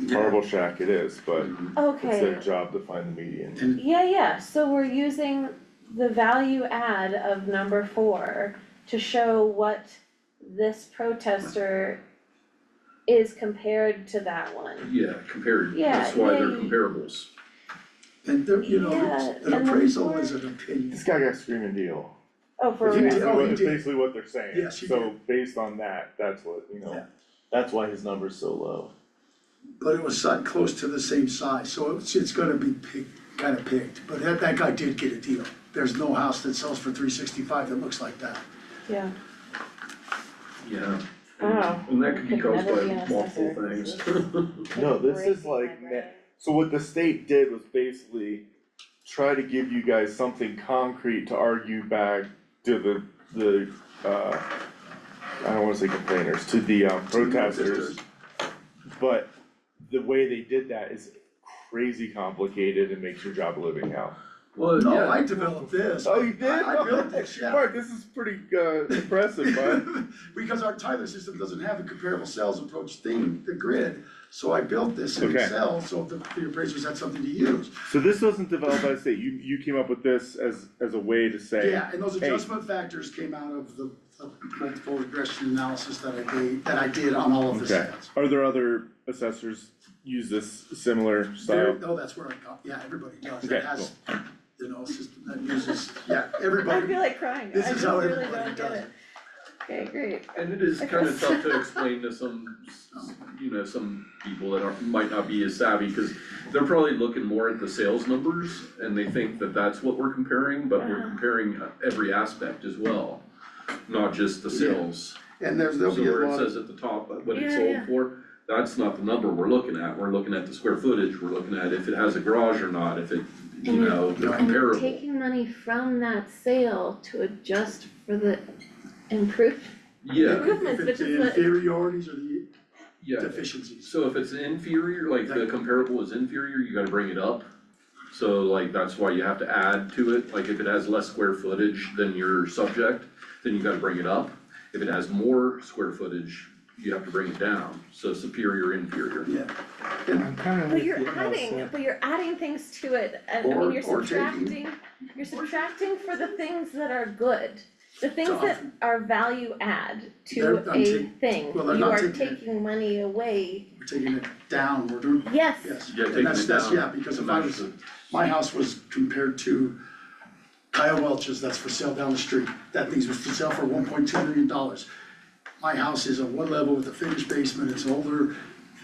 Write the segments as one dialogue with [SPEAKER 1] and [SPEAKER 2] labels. [SPEAKER 1] Marble Shack it is, but it's
[SPEAKER 2] Okay,
[SPEAKER 1] their job to find the median.
[SPEAKER 2] yeah, yeah, so we're using the value add of number four to show what this protester is compared to that one.
[SPEAKER 3] Yeah, compared,
[SPEAKER 2] Yeah,
[SPEAKER 3] that's why they're
[SPEAKER 2] yeah, you-
[SPEAKER 3] comparables.
[SPEAKER 4] And there, you know,
[SPEAKER 2] Yeah,
[SPEAKER 4] it's- an
[SPEAKER 2] and
[SPEAKER 4] appraisal
[SPEAKER 2] then-
[SPEAKER 4] is an opinion.
[SPEAKER 1] This guy got screaming deal.
[SPEAKER 2] Oh, for
[SPEAKER 1] It's
[SPEAKER 4] Did you
[SPEAKER 2] real,
[SPEAKER 1] basically
[SPEAKER 4] tell
[SPEAKER 1] what-
[SPEAKER 4] him
[SPEAKER 1] it's
[SPEAKER 4] did?
[SPEAKER 1] basically what they're saying,
[SPEAKER 4] Yes, you
[SPEAKER 1] so based on that, that's what, you know,
[SPEAKER 4] Yeah.
[SPEAKER 1] that's why his number's so low.
[SPEAKER 4] But it was si- close to the same size, so it's, it's gonna be picked, kinda picked, but that, that guy did get a deal. There's no house that sells for three sixty-five that looks like that.
[SPEAKER 2] yeah,
[SPEAKER 3] Yeah.
[SPEAKER 2] Wow.
[SPEAKER 3] And that could be
[SPEAKER 2] Could
[SPEAKER 3] caused
[SPEAKER 2] never be
[SPEAKER 3] by
[SPEAKER 2] an
[SPEAKER 3] multiple
[SPEAKER 2] assessor.
[SPEAKER 3] things.
[SPEAKER 1] No, this is
[SPEAKER 2] Breaking my
[SPEAKER 1] like, ne-
[SPEAKER 2] brain.
[SPEAKER 1] so what the state did was basically try to give you guys something concrete to argue back to the, the, uh, I don't wanna say complainers, to the um, protesters, but the way they did that is crazy complicated and makes your job a living hell.
[SPEAKER 3] Well,
[SPEAKER 4] No, I
[SPEAKER 3] yeah,
[SPEAKER 4] developed this.
[SPEAKER 1] Oh, you did?
[SPEAKER 4] I- I built this, yeah.
[SPEAKER 1] Mark, this is pretty, uh, impressive, bud.
[SPEAKER 4] Because our Tyler system doesn't have a comparable sales approach thing, the grid, so I built this in
[SPEAKER 1] Okay.
[SPEAKER 4] Excel, so the, the appraisers had something to use.
[SPEAKER 1] So this wasn't developed by the state, you, you came up with this as, as a way to say.
[SPEAKER 4] Yeah, and those
[SPEAKER 1] Hey.
[SPEAKER 4] adjustment factors came out of the, the multiple regression analysis that I did, that I did on all of the
[SPEAKER 1] Okay,
[SPEAKER 4] sales.
[SPEAKER 1] are there other assessors use this similar
[SPEAKER 4] There,
[SPEAKER 1] style?
[SPEAKER 4] no, oh, that's where I got, yeah, everybody does,
[SPEAKER 1] Okay,
[SPEAKER 4] that has, you know, system that uses, yeah,
[SPEAKER 2] I
[SPEAKER 4] everybody,
[SPEAKER 2] feel like crying, I
[SPEAKER 4] this is
[SPEAKER 2] just
[SPEAKER 4] how
[SPEAKER 2] really
[SPEAKER 4] everybody
[SPEAKER 2] don't get
[SPEAKER 4] does
[SPEAKER 2] it,
[SPEAKER 4] it.
[SPEAKER 2] okay, great,
[SPEAKER 3] and it is kind of tough to explain to some, you know, some people that aren't, might not be as savvy, cause they're probably looking more at the sales numbers, and they think that that's what we're comparing, but we're
[SPEAKER 2] Uh-huh.
[SPEAKER 3] comparing uh, every aspect as well, not just the sales.
[SPEAKER 4] And there's, there'll
[SPEAKER 3] So
[SPEAKER 4] be a
[SPEAKER 3] where it
[SPEAKER 4] lot of,
[SPEAKER 3] says at the top, uh, what it's
[SPEAKER 2] Yeah, yeah.
[SPEAKER 3] sold for, that's not the number we're looking at, we're looking at the square footage, we're looking at if it has a garage or not, if it, you
[SPEAKER 2] Mm-hmm.
[SPEAKER 5] And it-
[SPEAKER 3] know, they're
[SPEAKER 5] And
[SPEAKER 3] comparable.
[SPEAKER 5] you're taking money from that sale to adjust for the improvement.
[SPEAKER 3] Yeah,
[SPEAKER 2] improvements,
[SPEAKER 4] if it's
[SPEAKER 2] which is
[SPEAKER 4] the
[SPEAKER 2] what,
[SPEAKER 4] inferiorities or the
[SPEAKER 3] yeah,
[SPEAKER 4] deficiencies.
[SPEAKER 3] so if it's inferior, like the comparable is inferior, you gotta bring it up. So like, that's why you have to add to it, like if it has less square footage than your subject, then you gotta bring it up. If it has more square footage, you have to bring it down, so superior, inferior.
[SPEAKER 4] Yeah,
[SPEAKER 6] I'm kind of
[SPEAKER 2] but
[SPEAKER 6] with you
[SPEAKER 2] you're
[SPEAKER 6] on that,
[SPEAKER 2] adding,
[SPEAKER 6] so-
[SPEAKER 2] but you're adding things to it, and I mean,
[SPEAKER 4] Or-
[SPEAKER 2] you're
[SPEAKER 4] or taking.
[SPEAKER 2] subtracting, you're subtracting for the things that are good. The things that
[SPEAKER 4] Often.
[SPEAKER 2] are value add to
[SPEAKER 4] They're- I'm
[SPEAKER 2] a
[SPEAKER 4] taking-
[SPEAKER 2] thing,
[SPEAKER 4] well, they're
[SPEAKER 2] you
[SPEAKER 4] not
[SPEAKER 2] are
[SPEAKER 4] taking it.
[SPEAKER 2] taking money away,
[SPEAKER 4] we're taking it down, we're doing,
[SPEAKER 2] yes,
[SPEAKER 4] yes,
[SPEAKER 3] Yeah,
[SPEAKER 4] and
[SPEAKER 3] taking
[SPEAKER 4] that's,
[SPEAKER 3] it
[SPEAKER 4] that's,
[SPEAKER 3] down
[SPEAKER 4] yeah, because
[SPEAKER 3] to
[SPEAKER 4] if I
[SPEAKER 3] match
[SPEAKER 4] was,
[SPEAKER 3] the-
[SPEAKER 4] my house was compared to Kyle Welch's, that's for sale down the street, that thing's was for sale for one point two million dollars. My house is on one level with a finished basement, it's older,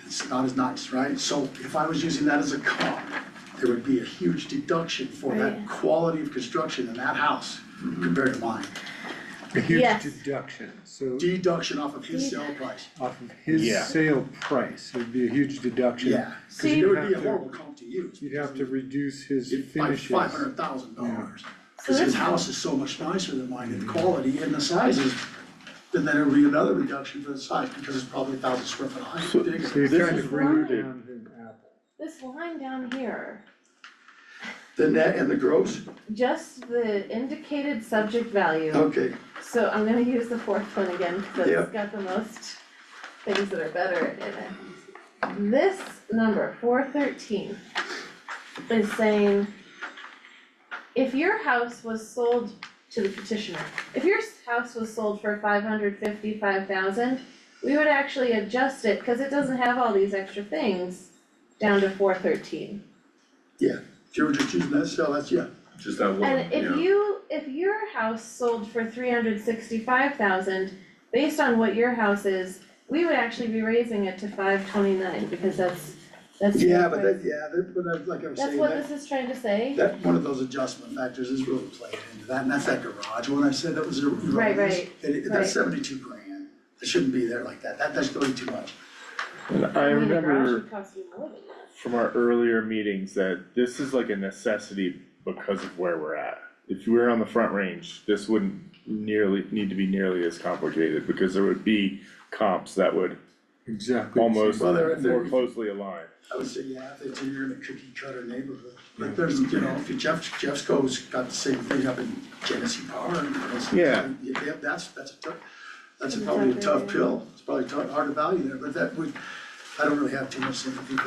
[SPEAKER 4] it's not as nice, right? So if I was using that as a comp, there would be a huge deduction for that
[SPEAKER 2] Right.
[SPEAKER 4] quality of construction in that house compared to mine.
[SPEAKER 6] A huge
[SPEAKER 2] Yes.
[SPEAKER 6] deduction, so
[SPEAKER 4] Deduction off of his sale price,
[SPEAKER 6] off of
[SPEAKER 1] Yeah.
[SPEAKER 6] his sale price, it'd be a huge deduction.
[SPEAKER 4] yeah, cause
[SPEAKER 2] See-
[SPEAKER 4] it would be a
[SPEAKER 6] You'd have to-
[SPEAKER 4] horrible comp to use.
[SPEAKER 6] You'd have to reduce his
[SPEAKER 4] By
[SPEAKER 6] finishes.
[SPEAKER 4] five hundred thousand dollars.
[SPEAKER 2] so
[SPEAKER 4] Cause his
[SPEAKER 2] that's,
[SPEAKER 4] house is so much nicer than mine, and the quality and the size is, and then it'll be another reduction for the size, because it's probably a thousand square foot high,
[SPEAKER 6] So
[SPEAKER 4] bigger.
[SPEAKER 6] you're
[SPEAKER 1] This
[SPEAKER 6] trying
[SPEAKER 2] is
[SPEAKER 6] to bring it
[SPEAKER 1] loaded.
[SPEAKER 6] down to an apple.
[SPEAKER 2] this line down here,
[SPEAKER 4] The net and the gross,
[SPEAKER 2] just the indicated subject value.
[SPEAKER 4] okay,
[SPEAKER 2] So I'm gonna use the fourth one again, cause
[SPEAKER 4] Yeah.
[SPEAKER 2] it's got the most things that are better in it. This number, four thirteen, is saying, if your house was sold to the petitioner, if your s- house was sold for five hundred fifty-five thousand, we would actually adjust it, cause it doesn't have all these extra things, down to four thirteen.
[SPEAKER 4] if you were just using that cell, that's, yeah,
[SPEAKER 3] Just that one,
[SPEAKER 2] And if
[SPEAKER 3] yeah,
[SPEAKER 2] you, if your house sold for three hundred sixty-five thousand, based on what your house is, we would actually be raising it to five twenty-nine, because that's, that's. the
[SPEAKER 4] yeah, but
[SPEAKER 2] price.
[SPEAKER 4] that, yeah, that, but I- like I was
[SPEAKER 2] That's
[SPEAKER 4] saying,
[SPEAKER 2] what
[SPEAKER 4] that,
[SPEAKER 2] this is trying to say,
[SPEAKER 4] that, one of those adjustment factors is really played into that, and that's that garage, when I said that was a.
[SPEAKER 2] Right, right,
[SPEAKER 4] that it-
[SPEAKER 2] right.
[SPEAKER 4] that's seventy-two grand, it shouldn't be there like that, that, that's really too much.
[SPEAKER 1] And I
[SPEAKER 2] I mean, a garage
[SPEAKER 1] remember
[SPEAKER 2] would cost you more than that.
[SPEAKER 1] from our earlier meetings that this is like a necessity because of where we're at. If you were on the front range, this wouldn't nearly, need to be nearly as complicated, because there would be comps that would
[SPEAKER 6] Exactly.
[SPEAKER 1] almost
[SPEAKER 4] Well, they're- they're-
[SPEAKER 1] more closely align.
[SPEAKER 4] I would say, yeah, if they you're in a cookie cutter neighborhood, but there's, you know, if you Jeff, Jeffco's got the same thing up in Genesee Power and those.
[SPEAKER 1] Yeah.
[SPEAKER 4] Yeah, that's, that's a tough, that's probably a tough pill, it's probably tough, hard to value there, but that would, I don't really have too much sympathy